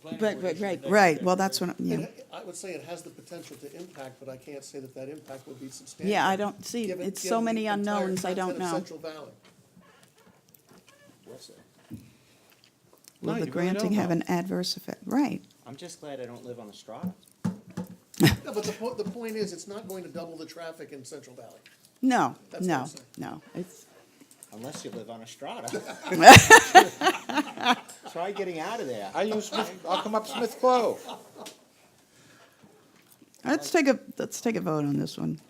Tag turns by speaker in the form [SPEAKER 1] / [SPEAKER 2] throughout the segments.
[SPEAKER 1] planning
[SPEAKER 2] Right,
[SPEAKER 1] board
[SPEAKER 2] right,
[SPEAKER 1] issued the
[SPEAKER 2] right.
[SPEAKER 1] next
[SPEAKER 3] Right,
[SPEAKER 1] day.
[SPEAKER 3] well, that's what, I'm- yeah.
[SPEAKER 4] It- I would say it has the potential to impact, but I can't say that that impact would be substantial.
[SPEAKER 3] Yeah, I don't see,
[SPEAKER 4] given-
[SPEAKER 3] it's so
[SPEAKER 4] given the
[SPEAKER 3] many
[SPEAKER 4] entire
[SPEAKER 3] unknowns, I
[SPEAKER 4] content
[SPEAKER 3] don't
[SPEAKER 4] of
[SPEAKER 3] know.
[SPEAKER 4] Central Valley. Well said.
[SPEAKER 1] No, you
[SPEAKER 3] Will the
[SPEAKER 1] really don't
[SPEAKER 3] granting have
[SPEAKER 1] know.
[SPEAKER 3] an adverse effect? Right.
[SPEAKER 5] I'm just glad I don't live on the strata.
[SPEAKER 4] No, but the po- the point is, it's not going to double the traffic in Central Valley.
[SPEAKER 3] No,
[SPEAKER 4] That's what
[SPEAKER 3] no,
[SPEAKER 4] I'm saying.
[SPEAKER 3] no. It's,
[SPEAKER 5] Unless you live on a strata. Try getting out of there.
[SPEAKER 1] I use Smith, I'll come up Smith Clove.
[SPEAKER 3] let's take a, let's take a vote on this one.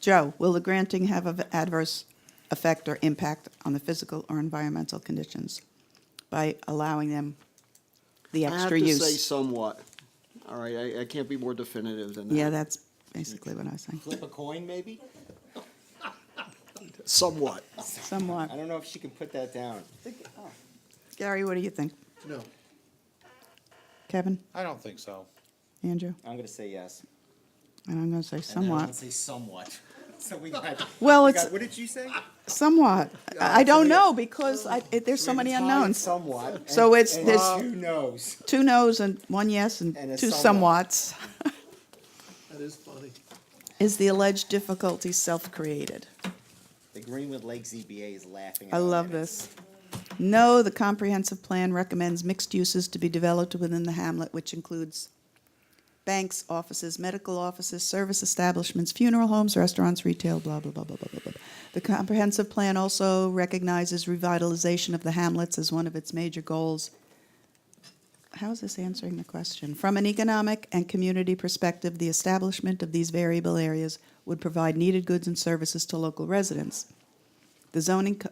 [SPEAKER 3] Joe, will the granting have an adverse effect or impact on the physical or environmental conditions by allowing them the extra
[SPEAKER 6] I have to say
[SPEAKER 3] use?
[SPEAKER 6] somewhat. All right, I, I can't be more definitive than that.
[SPEAKER 3] Yeah, that's basically what I was saying.
[SPEAKER 5] Flip a coin, maybe?
[SPEAKER 6] Somewhat.
[SPEAKER 3] Somewhat.
[SPEAKER 5] I don't know if she can put that down.
[SPEAKER 3] Gary, what do you think?
[SPEAKER 4] No.
[SPEAKER 3] Kevin,
[SPEAKER 1] I don't think so.
[SPEAKER 3] Andrew?
[SPEAKER 5] I'm gonna say yes.
[SPEAKER 3] And I'm going to say
[SPEAKER 5] And then I'm gonna
[SPEAKER 3] somewhat.
[SPEAKER 5] Say somewhat. So we got.
[SPEAKER 3] Well,
[SPEAKER 5] we
[SPEAKER 3] it's-
[SPEAKER 5] got- What did you say?
[SPEAKER 3] Somewhat. I I don't know because I, it- there's so
[SPEAKER 5] We
[SPEAKER 3] many
[SPEAKER 5] tied
[SPEAKER 3] unknowns.
[SPEAKER 5] Somewhat.
[SPEAKER 3] So
[SPEAKER 5] and-
[SPEAKER 3] it's-
[SPEAKER 5] and
[SPEAKER 3] there's-
[SPEAKER 5] Who knows?
[SPEAKER 3] Two noes and one yes and
[SPEAKER 5] And a
[SPEAKER 3] two
[SPEAKER 5] somewhat.
[SPEAKER 3] somewhats.
[SPEAKER 4] That is funny.
[SPEAKER 3] Is the alleged difficulty self-created?
[SPEAKER 5] The Greenwood Lake ZBA is laughing. at
[SPEAKER 3] I
[SPEAKER 5] our
[SPEAKER 3] love
[SPEAKER 5] minutes.
[SPEAKER 3] this. No, the comprehensive plan recommends mixed uses to be developed within the hamlet, which includes banks, offices, medical offices, service establishments, funeral homes, restaurants, retail, blah, blah, blah, blah, blah, blah, blah. The comprehensive plan also recognizes revitalization of the hamlets as one of its major goals. How is this answering the question? From an economic and community perspective, the establishment of these variable areas would provide needed goods and services to local residents. The zoning, co-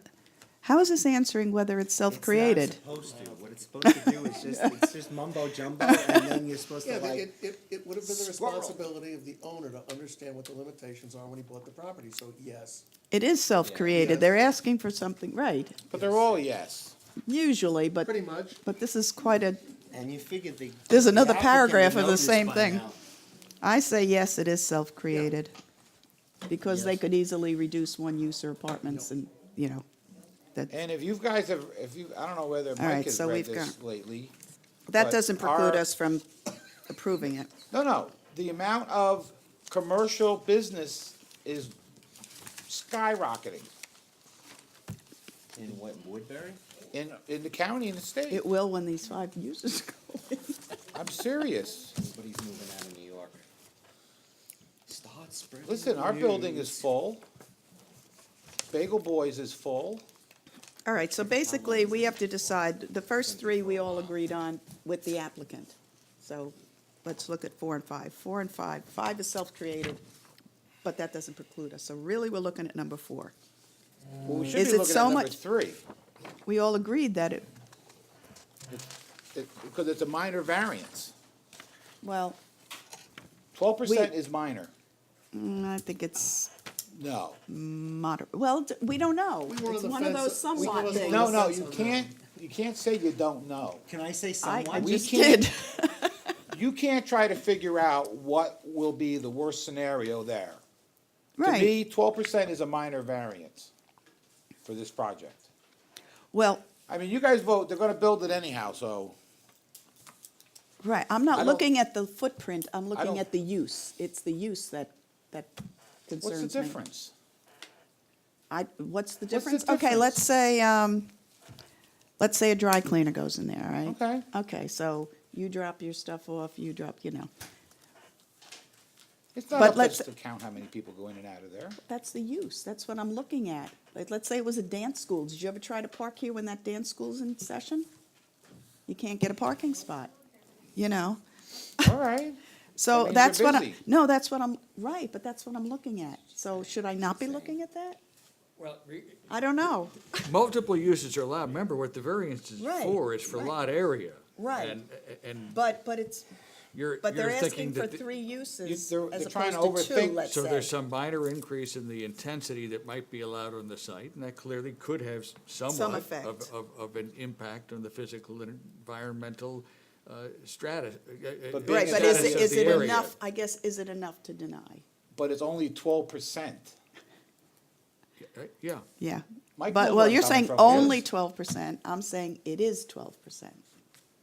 [SPEAKER 3] how is this answering whether it's
[SPEAKER 5] It's not
[SPEAKER 3] self-created?
[SPEAKER 5] supposed to. What it's supposed to do is just, it's just mumbo jumbo, and then you're supposed
[SPEAKER 4] Yeah,
[SPEAKER 5] to
[SPEAKER 4] but
[SPEAKER 5] like.
[SPEAKER 4] it, it, it would have been the
[SPEAKER 5] Squirrel.
[SPEAKER 4] responsibility of the owner to understand what the limitations are when he bought the property, so yes.
[SPEAKER 3] It is self-created. They're asking for something, right,
[SPEAKER 1] But they're all yes.
[SPEAKER 3] usually, but,
[SPEAKER 4] Pretty much.
[SPEAKER 3] but this is quite a,
[SPEAKER 5] And you figured the.
[SPEAKER 3] There's
[SPEAKER 5] the
[SPEAKER 3] another
[SPEAKER 5] applicant would
[SPEAKER 3] paragraph of the
[SPEAKER 5] know this
[SPEAKER 3] same
[SPEAKER 5] by
[SPEAKER 3] thing.
[SPEAKER 5] now.
[SPEAKER 3] I say yes, it is self-created. Because they
[SPEAKER 5] Yes.
[SPEAKER 3] could easily reduce one use or apartments and, you know, that,
[SPEAKER 1] And if you guys have, if you, I don't know whether Mike
[SPEAKER 3] right,
[SPEAKER 1] has
[SPEAKER 3] so
[SPEAKER 1] read
[SPEAKER 3] we've
[SPEAKER 1] this
[SPEAKER 3] got-
[SPEAKER 1] lately.
[SPEAKER 3] that
[SPEAKER 1] But
[SPEAKER 3] doesn't preclude
[SPEAKER 1] our-
[SPEAKER 3] us from approving it.
[SPEAKER 1] No, no, the amount of commercial business is skyrocketing
[SPEAKER 5] In what, Woodbury?
[SPEAKER 1] in, in the county and the state.
[SPEAKER 3] It will when these five uses go in.
[SPEAKER 1] I'm serious.
[SPEAKER 5] Everybody's moving out of New York. Start spreading.
[SPEAKER 1] Listen,
[SPEAKER 5] the
[SPEAKER 1] our building is
[SPEAKER 5] news.
[SPEAKER 1] full. Bagel Boys is full.
[SPEAKER 3] All right, so basically, we have to decide, the first three we all agreed on with the applicant. So let's look at four and five. Four and five, five is self-created, but that doesn't preclude us. So really, we're looking at number four.
[SPEAKER 1] Well, we should
[SPEAKER 3] Mm. Is
[SPEAKER 1] be
[SPEAKER 3] it
[SPEAKER 1] looking
[SPEAKER 3] so
[SPEAKER 1] at number
[SPEAKER 3] much-
[SPEAKER 1] three,
[SPEAKER 3] We all agreed that it,
[SPEAKER 1] it- because it's a minor variance.
[SPEAKER 3] well,
[SPEAKER 1] Twelve percent is minor.
[SPEAKER 3] mm, I think it's
[SPEAKER 1] No,
[SPEAKER 3] moderate. Well, d- we don't know.
[SPEAKER 4] We were on
[SPEAKER 3] It's
[SPEAKER 4] the
[SPEAKER 3] one of
[SPEAKER 4] fence.
[SPEAKER 3] those
[SPEAKER 4] We were on
[SPEAKER 3] somewhat
[SPEAKER 4] the
[SPEAKER 3] things.
[SPEAKER 1] no, no,
[SPEAKER 4] sense
[SPEAKER 1] you
[SPEAKER 4] on that.
[SPEAKER 1] can't, you can't say you don't know.
[SPEAKER 5] Can I say
[SPEAKER 3] I, I
[SPEAKER 5] somewhat?
[SPEAKER 1] We
[SPEAKER 3] just
[SPEAKER 1] can't-
[SPEAKER 3] did.
[SPEAKER 1] You can't try to figure out what will be the worst scenario there. To
[SPEAKER 3] Right.
[SPEAKER 1] me, twelve percent is a minor variance for this project.
[SPEAKER 3] Well,
[SPEAKER 1] I mean, you guys vote, they're gonna build it anyhow, so,
[SPEAKER 3] right, I'm
[SPEAKER 1] I
[SPEAKER 3] not
[SPEAKER 1] don't-
[SPEAKER 3] looking at the footprint, I'm
[SPEAKER 1] don't-
[SPEAKER 3] looking at the use. It's the use that, that concerns me.
[SPEAKER 1] what's the difference?
[SPEAKER 3] I, what's the
[SPEAKER 1] What's the
[SPEAKER 3] difference? Okay,
[SPEAKER 1] difference?
[SPEAKER 3] let's say, um, let's say a dry cleaner goes in there, all right?
[SPEAKER 1] Okay.
[SPEAKER 3] Okay, so you drop your stuff off, you drop, you know,
[SPEAKER 1] It's not
[SPEAKER 3] But
[SPEAKER 1] up to
[SPEAKER 3] let's-
[SPEAKER 1] us to count how many people go in and out of there.
[SPEAKER 3] that's the use, that's what I'm looking at. Like, let's say it was a dance school, did you ever try to park here when that dance school's in session? You can't get a parking spot, you know?
[SPEAKER 1] All right, That
[SPEAKER 3] So
[SPEAKER 1] means
[SPEAKER 3] that's
[SPEAKER 1] you're
[SPEAKER 3] what I,
[SPEAKER 1] busy.
[SPEAKER 3] no, that's what I'm, right, but that's what I'm looking at. So should I not be looking at that?
[SPEAKER 7] Well, re-
[SPEAKER 3] I don't know.
[SPEAKER 7] multiple uses are allowed, remember what the variance is
[SPEAKER 3] Right,
[SPEAKER 7] for, it's for
[SPEAKER 3] right.
[SPEAKER 7] lot area.
[SPEAKER 3] Right.
[SPEAKER 7] And, and
[SPEAKER 3] But, but it's,
[SPEAKER 7] you're,
[SPEAKER 3] but they're
[SPEAKER 7] you're thinking
[SPEAKER 3] asking for
[SPEAKER 7] that, the-
[SPEAKER 3] three uses
[SPEAKER 1] they're-
[SPEAKER 3] as
[SPEAKER 1] they're trying to
[SPEAKER 3] opposed to two,
[SPEAKER 1] overthink-
[SPEAKER 3] let's say.
[SPEAKER 7] so there's some minor increase in the intensity that might be allowed on the site, and that clearly could have s- somewhat
[SPEAKER 3] effect.
[SPEAKER 7] of, of, of an impact on the physical and environmental, uh, strata.
[SPEAKER 1] But being
[SPEAKER 3] Right, but is
[SPEAKER 1] status
[SPEAKER 3] it,
[SPEAKER 1] of
[SPEAKER 3] is
[SPEAKER 1] the
[SPEAKER 3] it enough, I guess, is it enough to deny?
[SPEAKER 1] but it's only twelve percent.
[SPEAKER 7] Yeah,
[SPEAKER 3] Yeah.
[SPEAKER 1] Mike knows
[SPEAKER 3] But,
[SPEAKER 7] uh,
[SPEAKER 1] where
[SPEAKER 3] well,
[SPEAKER 1] I'm
[SPEAKER 3] you're
[SPEAKER 1] coming
[SPEAKER 3] saying
[SPEAKER 1] from,
[SPEAKER 3] only
[SPEAKER 1] yes.
[SPEAKER 3] twelve percent, I'm saying it is twelve percent.